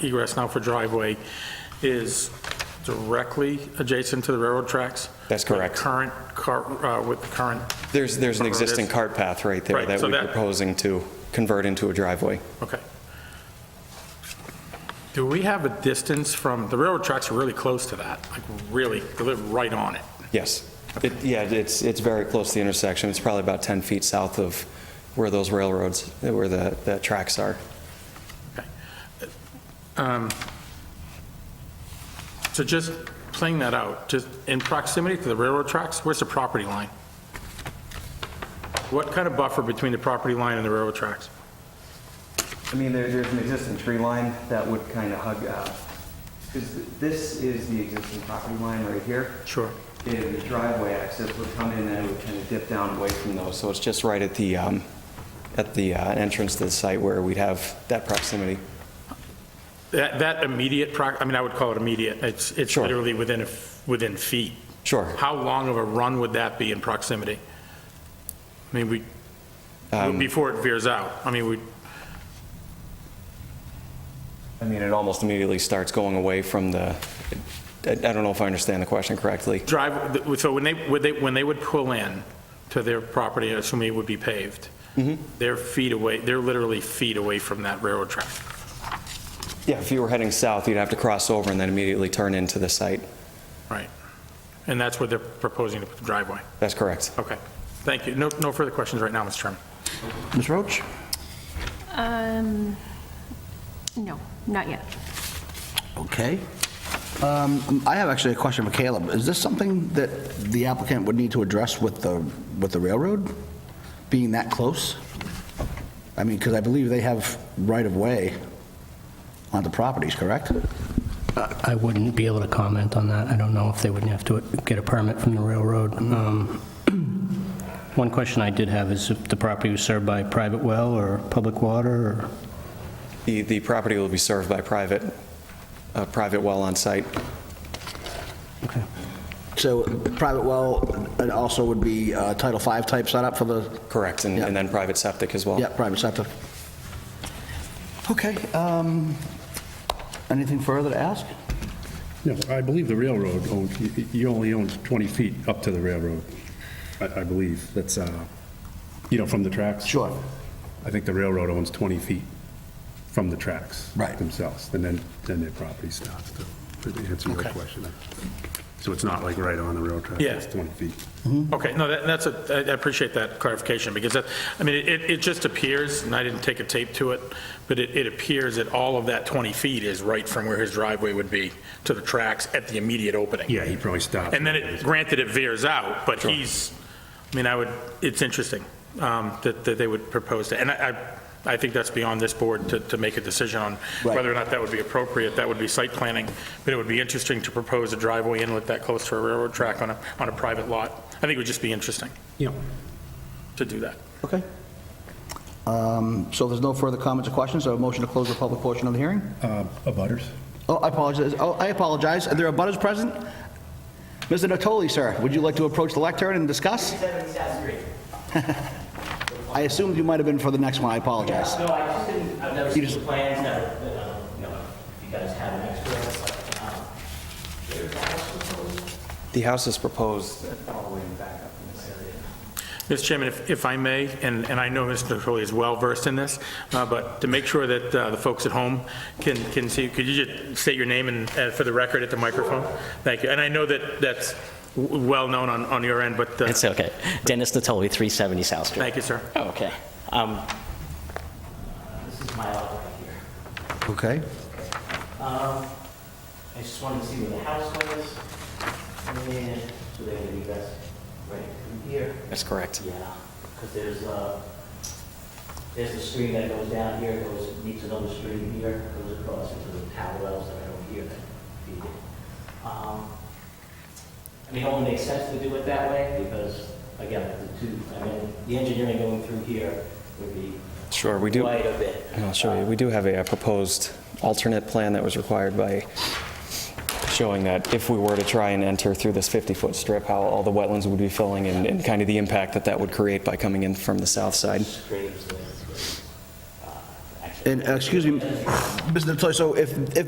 egress now for driveway is directly adjacent to the railroad tracks? That's With the correct. Current, car- uh, with the current, There's, there's an Whatever it existing is. cart path right there Right, that so we're that- proposing to convert into a driveway. okay. Do we have a distance from, the railroad tracks are really close to that, like really, they live right on it. Yes. It- Yeah, it's, it's very close to the intersection. It's probably about 10 feet south of where those railroads, where the, the tracks are. So just playing that out, just in proximity to the railroad tracks, where's the property line? What kind of buffer between the property line and the railroad tracks? I mean, there, there's an existing tree line that would kind of hug, because this is the existing property line right here. Sure. And the driveway access would come in and it would kind of dip down away from those. So it's just right at the, um, at the uh, entrance to the site where we'd have that proximity. That, that immediate, pro- I mean, I would call it immediate, it's, it's Sure. literally within, a f- within feet. Sure. How long of a run would that be in proximity? I mean, we, before it veers out, I mean, we, I mean, it almost immediately starts going away from the, I I don't know if I understand the question correctly. drive, so when they, when they, when they would pull in to their property, assuming it would be paved, they're feet away, they're literally feet away from that railroad track. Yeah, if you were heading south, you'd have to cross over and then immediately turn into the site. Right. And that's where they're proposing to put the driveway. That's correct. Okay. Thank you. No, no further questions right now, Mr. Chairman. Ms. Roach? Um, no, not yet. Okay. Um, I have actually a question for Caleb. Is this something that the applicant would need to address with the, with the railroad, being that close? I mean, because I believe they have right-of-way on the properties, correct? I wouldn't be able to comment on that. I don't know if they would have to get a permit from the railroad. Um, One question I did have is if the property was served by private well or public water, or The, the property will be served by private, a private well on site. okay. So private well, it also would be uh, Title V type setup for the, Correct, and and then private septic as well. yeah, private sector. Okay, um, anything further to ask? No, I believe the railroad owns, y- y- you only own 20 feet up to the railroad, I I believe. That's, uh, you know, from the tracks. Sure. I think the railroad owns 20 feet from the tracks. Right. Themselves, and then, then their property stops, to to answer your Okay. question. So it's not like right on the rail track, Yeah. it's 20 feet. Okay, no, that- that's a, I I appreciate that clarification, because that, I mean, it, it just appears, and I didn't take a tape to it, but it, it appears that all of that 20 feet is right from where his driveway would be to the tracks at the immediate opening. Yeah, he probably stopped. And then it, granted, it veers out, but he's, I mean, I would, it's interesting um, that, that they would propose that. And I, I I think that's beyond this board to, to make a decision on Right. whether or not that would be appropriate. That would be site planning, but it would be interesting to propose a driveway inlet that close to a railroad track on a, on a private lot. I think it would just be interesting Yeah. to do that. Okay. Um, So there's no further comments or questions, so a motion to close the public portion of the hearing? uh, Abutters? Oh, I apologize, oh, I apologize, are there abutters present? Mr. Natoli, sir, would you like to approach the lectern and discuss? I assumed you might have been for the next one, I apologize. No, I just didn't, I've never You seen just- the plans, never, you know, you know, if you guys have an experience like, um, The house is proposed all the way in the back. Mr. Chairman, if, if I may, and, and I know Mr. Natoli is well-versed in this, uh, but to make sure that uh, the folks at home can, can see, could you just state your name and, uh, for the record at the microphone? Thank you. And I know that that's w- well-known on, on your end, but, uh, It's okay. Dennis Natoli, 370 South Street. thank you, sir. Oh, okay. Um, this is my lot right here. Okay. Um, I just wanted to see where the house was, and so they're gonna be best right through here. That's correct. Yeah, because there's a, there's a stream that goes down here, goes, meets another stream here, goes across into the parallels that I don't hear that feed it. Um, I mean, it only makes sense to do it that way because, again, the two, I mean, the engineering going through here would be Sure, we do. quite a bit. And I'll show you, we do have a uh, proposed alternate plan that was required by showing that if we were to try and enter through this 50-foot strip, how all the wetlands would be filling and, and kind of the impact that that would create by coming in from the south side. Streams, uh, I can't And, uh, excuse me, Mr. Natoli, so if, if